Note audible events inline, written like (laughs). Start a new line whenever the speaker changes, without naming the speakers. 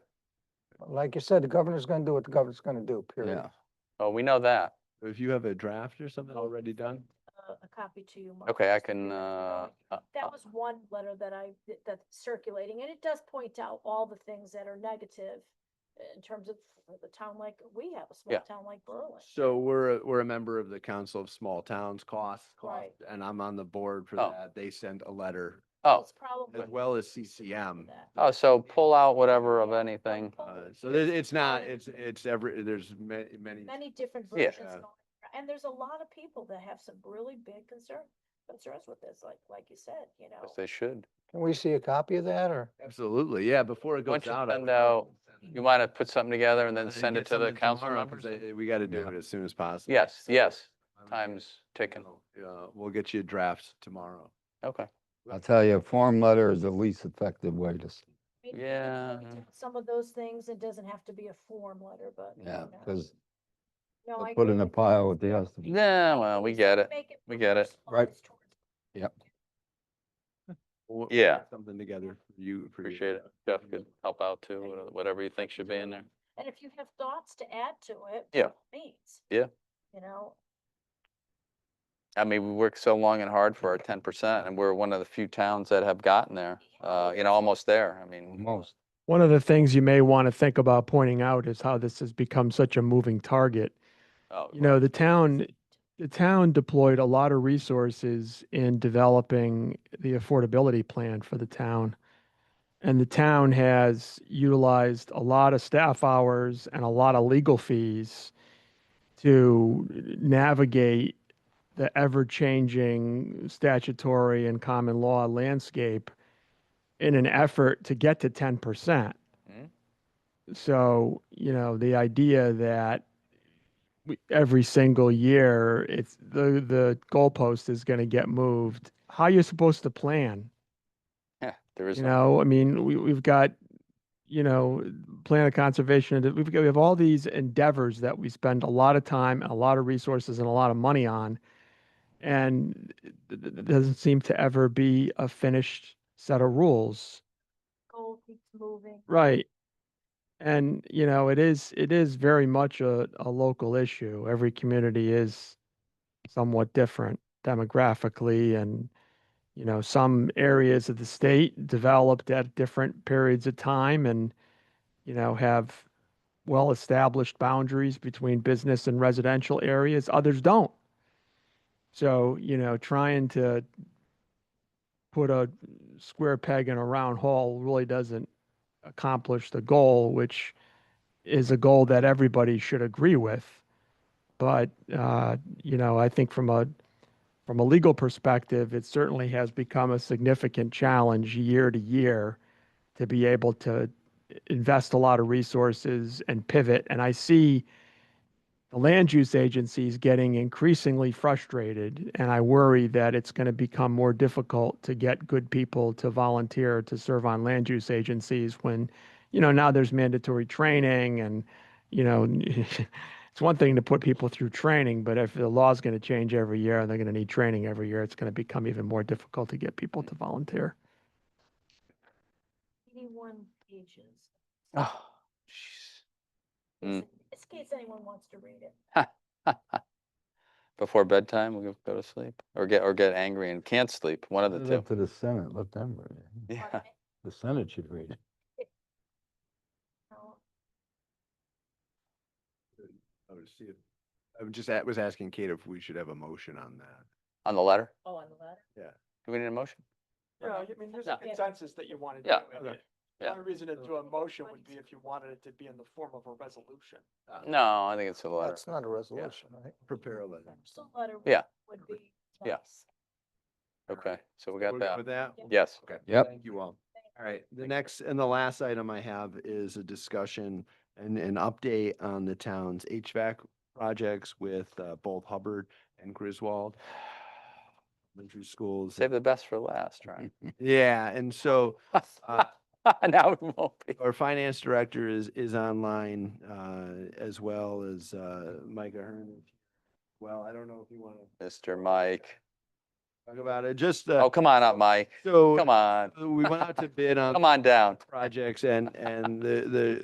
like you said, the governor's gonna do what the governor's gonna do, period.
Yeah.
Oh, we know that.
If you have a draft or something already done,
a a copy to you. Mark,
Okay, I
just so you
can, uh,
guys
uh,
know. That was one letter that I, that- that's circulating, and it does point out all the things that are negative uh, in terms of the town like, we have a
Yeah.
small town like Berlin.
so we're, a- we're a member of the Council of Small Towns Cost,
Right.
and I'm on the board for
Oh.
that. They sent a letter
oh,
It's probably.
as well as CCM.
that.
oh, so pull out whatever of anything.
Uh,
Oh,
So there- it's not,
um,
it's, it's every, there's ma- many.
Many different
Yeah.
versions going, ar- and there's a lot of people that have some really big concern, concerns with this, like, like you said, you know.
Yes, They should.
Can we see a copy of that or?
Absolutely, yeah, before it
Why
goes
don't you
out. I
send
would love to send
You
it.
might have put something together and then
Uh,
send
get
it to the
something
council
tomorrow,
members.
'cause I- We got to do
Yeah.
it as soon as possible.
Yes, yes,
Um,
time's ticking.
um,
so, Uh, we'll get you a draft tomorrow.
Okay.
I'll tell you, a form letter is the least effective way to, s-
I mean, we
Yeah.
can point out Some of those things, it doesn't have to be a form letter, but. you
yeah,
know.
because
No, Oh, I
put
agree
in a
with you.
pile with the rest of it.
Yeah, well, we get it.
Make it
We get it.
Right.
personalized towards
We'll- we'll
Yeah.
put Something together, for you. for you.
Appreciate it. Jeff could help out too, wha- whatever you think should be in there.
And if you have thoughts to add to it.
Yeah.
Means.
Yeah.
You know,
I mean, we worked so long and hard for our ten percent and we're one of the few towns that have gotten there, uh, you know, almost there. I
Mm-hmm.
mean.
Most,
One of the things you may want to think about pointing out is how this has become such a moving target.
oh,
You know, the town, the town deployed a lot of resources in developing the affordability plan for the town. And the town has utilized a lot of staff hours and a lot of legal fees to navigate the ever-changing statutory and common law landscape in an effort to get to ten percent.
Mhm.
So, you know, the idea that we, every single year, it's the, the goalpost is gonna get moved. How you supposed to plan?
Yeah, there is.
You
no-
know, I mean, we, we've got, you know, plan of conservation, and we've got, we have all these endeavors that we spend a lot of time, a lot of resources and a lot of money on. And it- it it doesn't seem to ever be a finished set of rules.
goal keeps moving.
Right. And, you know, it is, it is very much a, a local issue. Every community is somewhat different demographically and, you know, some areas of the state developed at different periods of time and, you know, have well-established boundaries between business and residential areas. Others don't. So, you know, trying to put a square peg in a round hole really doesn't accomplish the goal, which is a goal that everybody should agree with. But uh, you know, I think from a from a legal perspective, it certainly has become a significant challenge year to year to be able to invest a lot of resources and pivot. And I see the land use agencies getting increasingly frustrated, and I worry that it's going to become more difficult to get good people to volunteer to serve on land use agencies when you know now there's mandatory training and you know (laughs) it's one thing to put people through training but if the law's going to change every year and they're going to need training every year it's going to become even more difficult to get people to volunteer
Eighty-one pages.
Oh, jeez. Mm.
In this case, anyone wants to read it.
Before bedtime, we go to sleep or get, or get angry and can't sleep, one of the
Leave
(laughs)
two. (laughs)
it to the Senate, let them read it.
Yeah. (laughs)
Pardon me?
The Senate should read it.
No,
I would see if- I was just, a- was asking Kate if we should have a motion on that.
On the letter?
Oh, on the letter.
Do we need a motion?
no, I mean, there's
a No.
consensus that you wanted
to Yeah.
do it.
The Yeah.
only reason to
do
a motion
would be if
you wanted it to be in the form of a resolution.
No, I think it's a letter.
That's not a resolution, right?
Prepare a letter.
Just a letter. would-
Mm. Yeah.
Would be.
Yeah.
nice.
Okay, so we
We're
got
good
that.
With that?
Yeah.
(laughs)
Yes.
Okay.
Yep.
Thank you all. All right, the next and the last item I have is a discussion and an update on the town's HVAC projects with uh, both Hubbard and Griswold. Elementary schools.
Save the best for last, right?
Yeah, and so (laughs) uh,
(laughs) Now we won't be.
our finance director is, is online, uh, as well as, uh, Micah Herman. Well, I don't know if you want to
Mr. Mike.
talk about it, just, uh,
Oh, come on up, Mike.
so
Come on.
uh, we went out to bid on
(laughs) Come on down.
projects and, and the, the,